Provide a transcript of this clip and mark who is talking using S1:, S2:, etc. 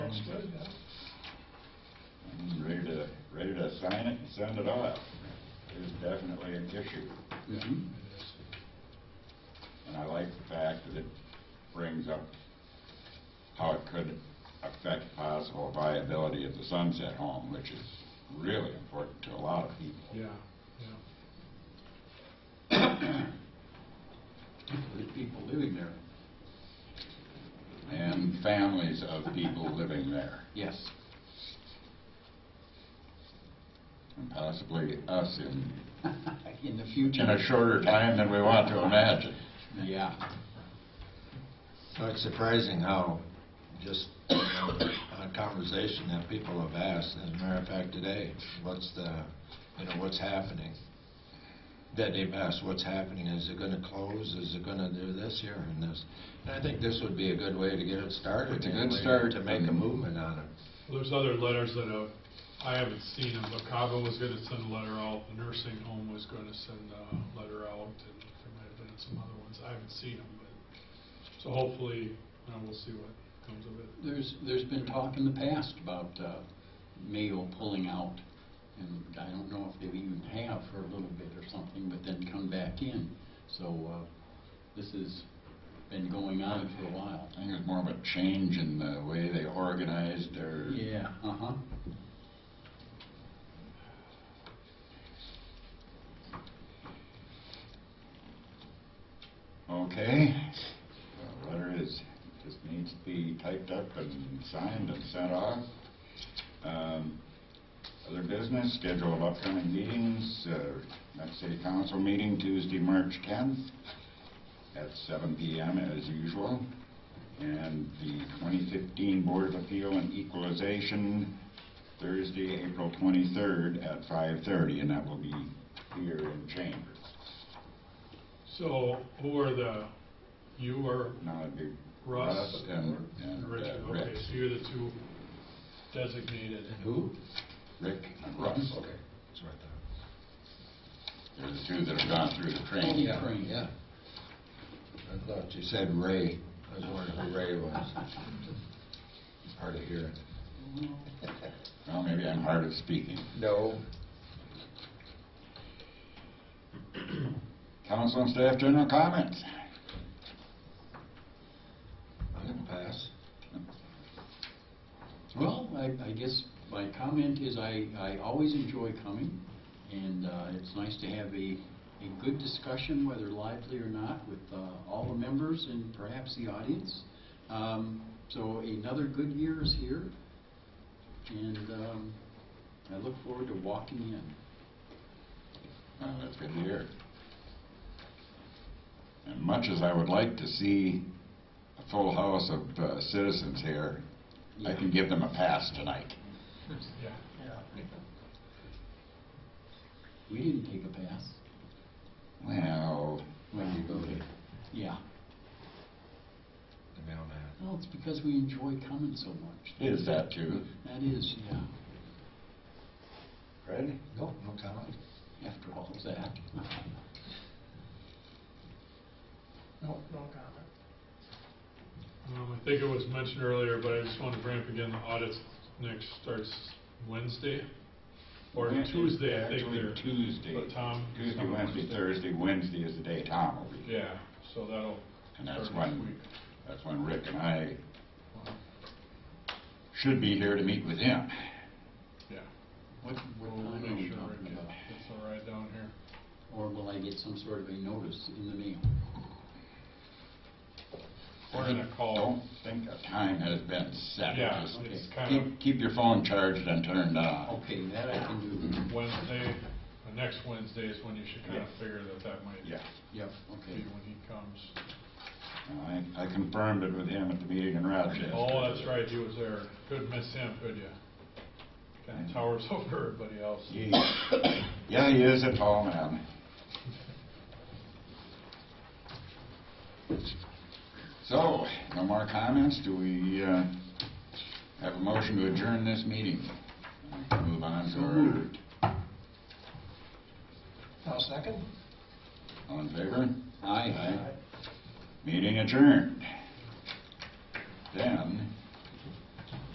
S1: sign it and send it off. It is definitely an issue.
S2: Yeah.
S1: And I like the fact that it brings up how it could affect possible viability of the Sunset Home, which is really important to a lot of people.
S2: Yeah,
S1: There's people living there. And families of people living there,
S3: Yes.
S1: and possibly us in,
S3: In the
S1: in
S3: future.
S1: a shorter time than we want to imagine.
S3: Yeah.
S4: Well, It's surprising how, just on a conversation that people have asked, as a matter of fact, today, what's the, you know, what's happening? That they've asked, what's happening, is it gonna close, is it gonna do this here and this? And I think this would be a good way to get it started.
S1: It's a good
S4: anyway,
S1: start.
S4: To make a movement on it.
S5: Well, There's other letters that uh, I haven't seen them, but Cabo was going to send a letter out, the nursing home was going to send a letter out, and there might have been some other ones, I haven't seen them, but, so hopefully, you know, we'll see what comes of it.
S3: There's, there's been talk in the past about uh, Mayo pulling out, and I don't know if they even have for a little bit or something, but then come back in. So uh, this has been going on for a while.
S1: I think it's more of a change in the way they organized their
S3: Yeah, uh-huh.
S1: Okay, the letter is, just needs to be typed up and signed and sent off. Um, Other business, schedule of upcoming meetings, uh, next city council meeting Tuesday, March 10th at 7 PM as usual. And the 2015 Board of Appeal and Equalization, Thursday, April 23rd at 5:30, and that will be here in chambers.
S5: So who are the, you or
S1: Now, it'd be
S5: Russ?
S1: Russ and and,
S5: and
S1: uh,
S5: Richard, okay,
S1: Rick.
S5: so you're the two designated.
S4: And who?
S1: Rick and Russ.
S4: Okay. That's what I
S1: They're the two that have gone through the
S5: Oh,
S1: training.
S3: Yeah.
S4: thought.
S3: Crane.
S4: Yeah. I thought you said Ray. I was wondering who Ray was. Hard to hear.
S1: Well, maybe I'm hard of speaking.
S4: No.
S1: Council and staff general comments.
S4: I'm gonna pass.
S3: Well, I, I guess my comment is I, I always enjoy coming, and uh, it's nice to have a, a good discussion, whether lively or not, with uh, all the members and perhaps the audience. Um, So another good year is here, and um, I look forward to walking in.
S1: Well, that's good to hear. And much as I would like to see a full house of uh, citizens here, I can give them a pass tonight.
S5: Yeah.
S3: We didn't take a pass
S1: Well,
S3: when we voted. Yeah,
S4: The mailman.
S3: well, it's because we enjoy coming so much.
S1: is that true?
S3: That is, yeah,
S1: Fred?
S4: Nope, no comment.
S3: after all of that.
S5: Um, I think it was mentioned earlier, but I just want to bring up again, the audit next starts Wednesday, or Tuesday, I think they're.
S1: Actually, Tuesday.
S5: But Tom.
S1: Tuesday, Wednesday, Thursday, Wednesday is the day Tom will be.
S5: Yeah, so that'll.
S1: And that's
S5: start next
S1: when-
S5: week.
S1: That's when Rick and I should be here to meet with him.
S5: Yeah.
S3: What, what
S5: We'll
S3: time are we
S5: make sure
S3: talking
S5: it
S3: about?
S5: gets all right down here.
S3: Or will I get some sort of a notice in the mail?
S5: We're gonna
S1: I
S5: call.
S1: Don't think a time has been set.
S5: Yeah,
S1: Just
S5: it's
S3: Okay.
S5: kind
S1: Keep, keep your phone charged and turned on.
S3: Okay, that I can do.
S5: of Wednesday, the next Wednesday is when you should kind of
S1: Yeah.
S5: figure that that might be
S1: Yeah,
S3: Yep, okay.
S5: when he comes.
S1: I, I confirmed it with him at the meeting in Rochester.
S5: Oh, that's right, he was there. Couldn't miss him, could you? Kind of towers over everybody else.
S1: He- Yeah, he is a tall man. So, no more comments? Do we, uh, have a motion to adjourn this meeting? Move on
S3: So
S1: to
S3: moved.
S4: I'll second.
S1: our, all in favor?
S3: Aye.
S1: Meeting adjourned. Then,